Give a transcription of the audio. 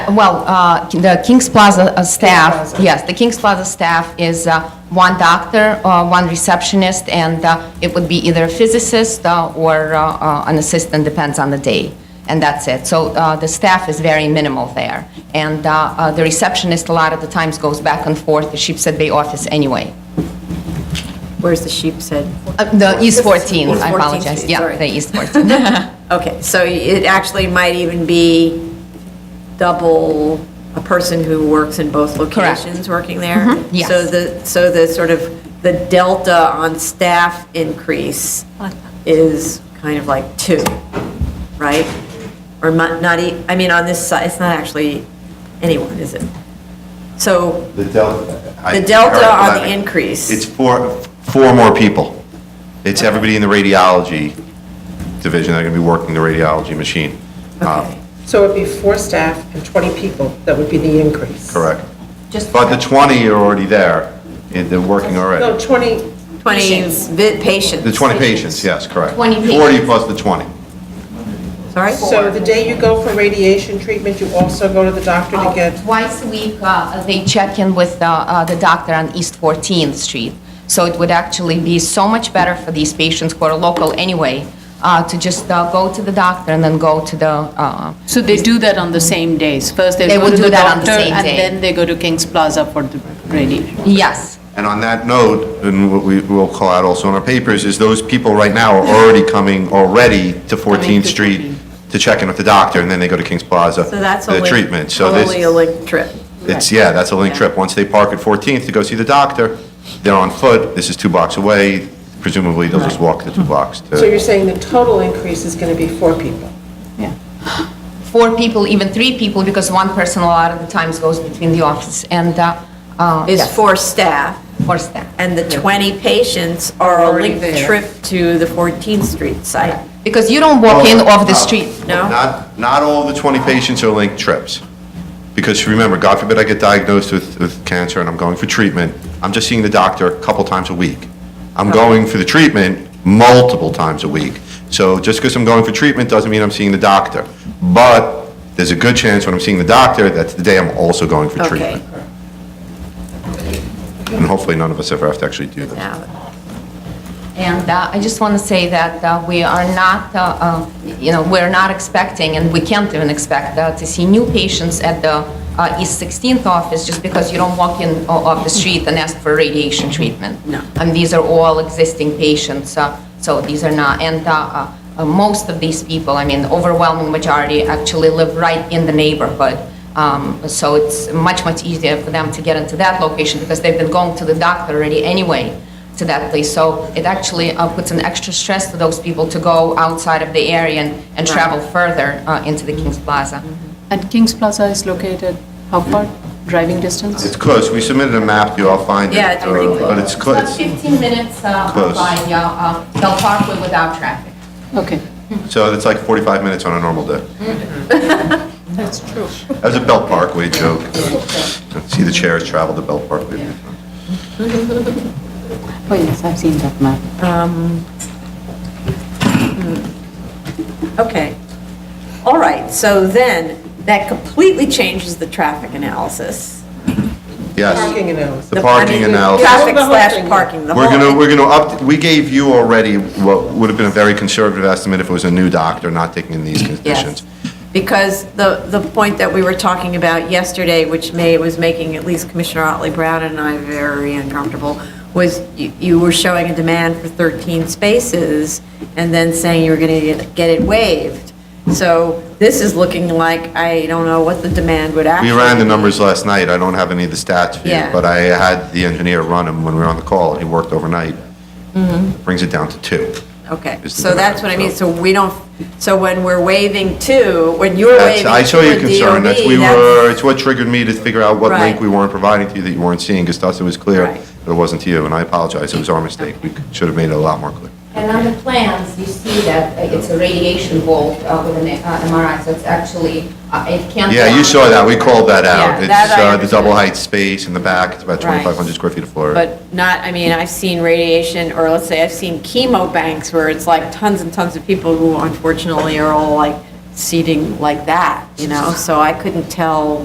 well, uh, the Kings Plaza uh, staff, Plaza. yes, the Kings Plaza staff is uh, one doctor, uh, one receptionist, and uh, it would be either a physicist uh, or uh, uh, an assistant, depends on the day, and that's it. So uh, the staff is very minimal there. And uh, uh, the receptionist, a lot of the times, goes back and forth, the Sheepshead Bay office anyway. Where's the sheep's head? Uh, The East East 14, I 14th apologize, Street, yeah, sorry. the East 14. Okay, so it actually might even be double, a person who works in both Correct. locations working there? yes. So the, so the sort of, the delta on staff increase is kind of like two, right? Or not, not, e- I mean, on this side, it's not actually anyone, is it? So, The delta. I- The delta all right, on the I- increase. It's four, four more people. It's everybody in the radiology division that are going to be working the radiology machine. Uh, okay, So it'd be four staff and 20 people, that would be the increase? Correct. But the 20 are already there, and they're working No, already. 20, 20 vi- patients. The 20 patients, yes, correct. 20 40 patients. plus the 20. Sorry? so the day you go for radiation treatment, you also go to the doctor to Uh, get, Twice a week, uh, they check in with uh, uh, the doctor on East 14th Street. So it would actually be so much better for these patients who are local anyway, uh, to just uh, go to the doctor and then go to the, uh, So they do that on the same days? First they They go would to do the that on the doctor same and day. then they go to Kings Plaza for the radiation? yes, And on that note, and what we will call out also in our papers, is those people right now are already coming, already to 14th to Street 14th. to check in with the doctor, and then they go to Kings Plaza. So that's for The only, treatment, so this. only a link trip. It's, yeah, that's a link Yeah. trip. Once they park at 14th to go see the doctor, they're on foot, this is two blocks away, presumably they'll just walk the two blocks. to- so you're saying the total increase is going to be four people? four people, even three people, because one person a lot of the times goes between the office and, uh, uh, Is yes, for staff. for staff. And the 20 patients are a link trip to the 14th Street site. Because you don't Oh, walk in off the street. No? Uh, Not, not all the 20 patients are linked trips. Because remember, God forbid I get diagnosed with, with cancer and I'm going for treatment, I'm just seeing the doctor a couple times a week. I'm going for the treatment multiple times a week. So just because I'm going for treatment doesn't mean I'm seeing the doctor. But there's a good chance when I'm seeing the doctor, that's the day I'm also going for Okay, treatment. And hopefully none of us ever have to actually do that. now, And uh, I just want to say that uh, we are not, uh, uh, you know, we're not expecting, and we can't even expect, uh, to see new patients at the uh, East 16th office just because you don't walk in o- off the street and ask for radiation treatment. No. And these are all existing patients, uh, so these are not, and uh, uh, uh, most of these people, I mean, the overwhelming majority actually live right in the neighborhood. Um, So it's much, much easier for them to get into that location because they've been going to the doctor already anyway to that place. So it actually uh, puts an extra stress to those people to go outside of the area and, and travel further uh, into the Kings Plaza. And Kings Plaza is located how far, driving distance? It's close, we submitted a map, you all find it. Yeah, it's pretty uh, But close. it's close. 15 minutes uh, Close. by uh, uh, Del Parkway without traffic. Okay. So it's like 45 minutes on a normal day. That's true. That was a Belt Parkway joke. See, the chairs travel to Belt Parkway. Oh, yes, I've seen that map. okay. All right, so then, that completely changes the traffic analysis. Yes, Parking analysis. the I mean, parking the analysis. Traffic The whole slash thing. parking, the whole. We're gonna, we're gonna up, we gave you already what would have been a very conservative estimate if it was a new doctor not taking in these Yes, conditions. because the, the point that we were talking about yesterday, which may, was making at least Commissioner Otley Brown and I very uncomfortable, was you, you were showing a demand for 13 spaces and then saying you were going to get it waived. So this is looking like, I don't know what the demand would actually. We ran the numbers last night, I don't have any of the stats for you, Yeah. but I had the engineer run them when we were on the call, and he worked overnight. Mm-hmm. Brings it down to two. Okay, is the so that's what I mean, demand, so we don't, so when we're waiving two, when you're That's, waiving two I saw your with concern, that's, we DOE, that's- were, it's what triggered me to figure out what link Right. we weren't providing to you that you weren't seeing, because to us it was clear Right. that it wasn't to you, and I apologize, it was our mistake, we should have made it a lot more clear. And on the plans, you see that uh, it's a radiation vault uh, with an uh, MRI, so it's actually, uh, it can't. Yeah, you saw that, we called that out, Yeah, it's that I uh, the understood. double height space in the back, it's about Right. 2,500 square feet of floor. But not, I mean, I've seen radiation, or let's say I've seen chemo banks where it's like tons and tons of people who unfortunately are all like seating like that, you know? So I couldn't tell